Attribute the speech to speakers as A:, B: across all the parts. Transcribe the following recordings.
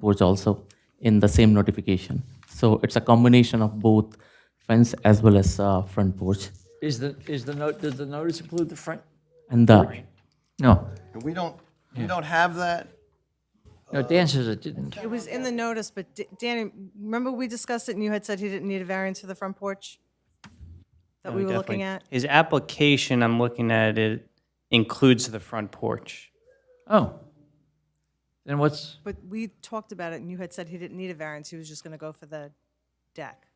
A: porch also in the same notification. So it's a combination of both fence as well as uh, front porch.
B: Is the, is the note, does the notice include the front?
A: And the,
B: No.
C: We don't, we don't have that?
B: No,
D: Uh,
B: Dan says it didn't.
D: It was in the notice, but D- Danny, remember we discussed it and you had said he didn't need a variance for the front porch? That we were looking at?
E: His application, I'm looking at it, includes the front porch.
B: Oh. Then what's,
D: But we talked about it and you had said he didn't need a variance, he was just gonna go for the deck,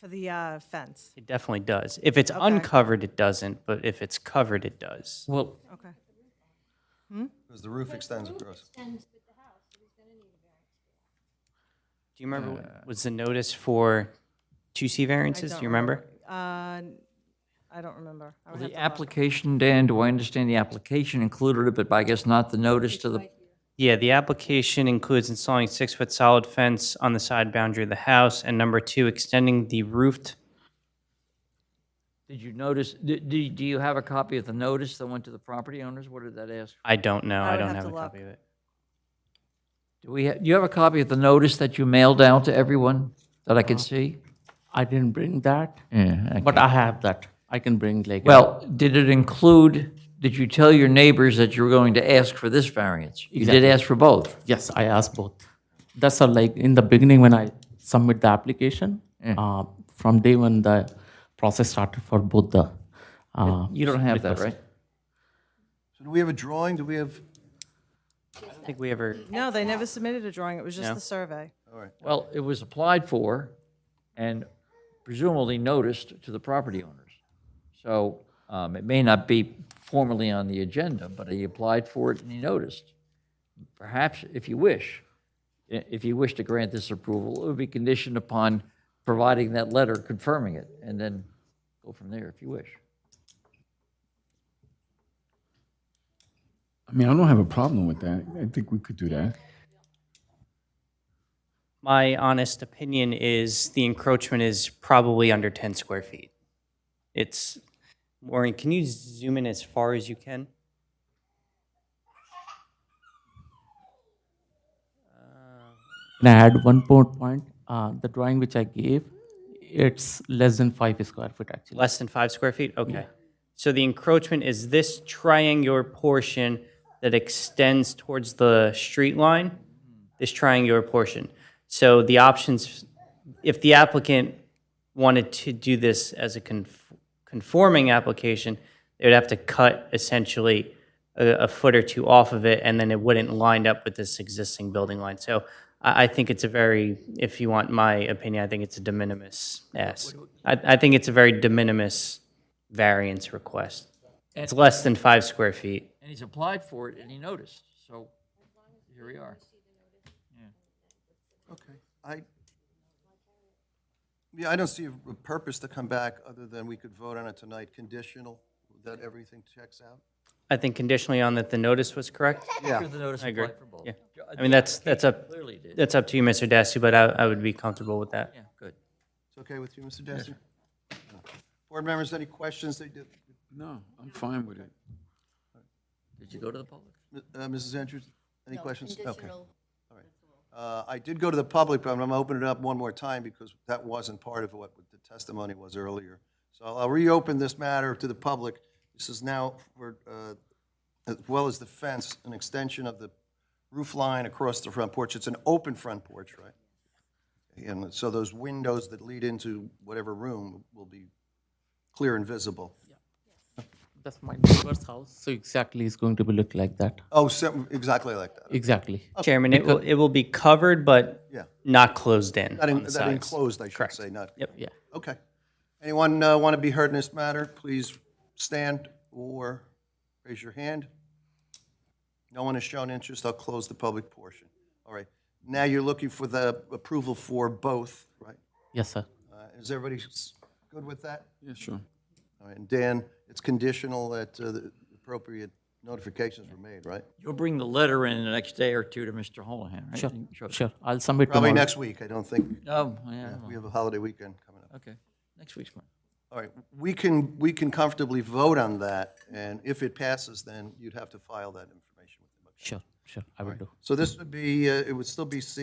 D: for the uh, fence.
E: It definitely does. If it's uncovered, it doesn't, but if it's covered, it does.
A: well,
D: Okay.
C: Because the roof extends across.
E: Do you remember, what was the notice for 2C variances? Do you remember?
D: Uh, I don't remember. I would have
B: the
D: to look.
B: application, Dan, do I understand the application included it, but I guess not the notice to the,
E: Yeah, the application includes installing six-foot solid fence on the side boundary of the house, and number two, extending the roofed,
B: did you notice, do, do do you have a copy of the notice that went to the property owners? What did that ask?
E: I don't know,
D: I
E: I
D: would
E: don't
D: have
E: have
D: to
E: a
D: look.
E: copy of it.
B: Do we, ha- do you have a copy of the notice that you mailed out to everyone that I
D: Uh-huh.
B: could see?
A: I didn't bring that,
B: Yeah.
A: but I have that. I can bring like. uh,
B: Well, did it include, did you tell your neighbors that you were going to ask for this variance? You did ask for both?
A: Yes, I asked both. That's all, like, in the beginning, when I submit the application, uh, from day when the process started for both the, uh,
B: You don't have that, right?
C: So do we have a drawing? Do we have,
E: I don't think we ever,
D: No, they never submitted a drawing, it was just the survey.
B: Well, it was applied for and presumably noticed to the property owners. So um, it may not be formally on the agenda, but he applied for it and he noticed. Perhaps, if you wish, i- if you wish to grant this approval, it would be conditioned upon providing that letter confirming it, and then go from there if you wish.
F: I mean, I don't have a problem with that. I think we could do that.
E: my honest opinion is the encroachment is probably under 10 square feet. It's, Maureen, can you zoom in as far as you can?
A: And I had one more point, uh, the drawing which I gave, it's less than five square foot actually.
E: Less than five square feet? Okay. So the encroachment is this triangular portion that extends towards the street line, this triangular portion. So the options, if the applicant wanted to do this as a conf- conforming application, they would have to cut essentially a, a foot or two off of it, and then it wouldn't line up with this existing building line. So I, I think it's a very, if you want my opinion, I think it's a de minimis ask. I, I think it's a very de minimis variance request. It's less than five square feet.
B: And he's applied for it and he noticed, so here we are.
C: okay, I, yeah, I don't see a purpose to come back other than we could vote on it tonight, conditional, that everything checks out.
E: I think conditionally on that the notice was correct.
C: Yeah,
B: The notice
E: I agree.
B: applied for both.
E: Yeah.
B: Jo-
E: I mean, that's, that's up,
B: Clearly did.
E: that's up to you, Mr. Dasty, but I, I would be comfortable with that.
B: Yeah, good.
C: it's okay with you, Mr. Dessner? Board members, any questions? They did-
F: No, I'm fine with it.
B: Did you go to the public?
C: uh, Mrs. Andrews, any questions? Okay. All right. Uh, I did go to the public, but I'm going to open it up one more time because that wasn't part of what the testimony was earlier. So I'll reopen this matter to the public. This is now, for, uh, as well as the fence, an extension of the roof line across the front porch. It's an open front porch, right? And so those windows that lead into whatever room will be clear and visible.
A: That's my neighbor's house, so exactly it's going to be look like that,
C: Oh, so- exactly like that,
A: exactly.
E: Chairman, it will, it will be covered, but
C: yeah.
E: not closed in
C: That
E: on
C: en-
E: the
C: that
E: sides.
C: enclosed, I should say, not.
E: Yep.
A: Yeah.
C: Okay. Anyone uh, want to be heard in this matter, please stand or raise your hand. No one has shown interest, I'll close the public portion. All right, now you're looking for the approval for both, right?
A: Yes, sir.
C: Uh, Is everybody s- good with that?
F: Yeah, sure.
C: All right, and Dan, it's conditional that uh, the appropriate notifications were made, right?
B: You'll bring the letter in the next day or two to Mr. Holohan, right?
A: Sure,
B: And show it-
A: sure. I'll submit
C: Probably
A: tomorrow.
C: next week, I don't think,
B: Oh, yeah,
C: we have a holiday weekend coming up.
B: okay. Next week's one.
C: All right, we can, we can comfortably vote on that, and if it passes, then you'd have to file that information with the motion.
A: Sure, sure, I will do.
C: So this would be, uh, it would still be C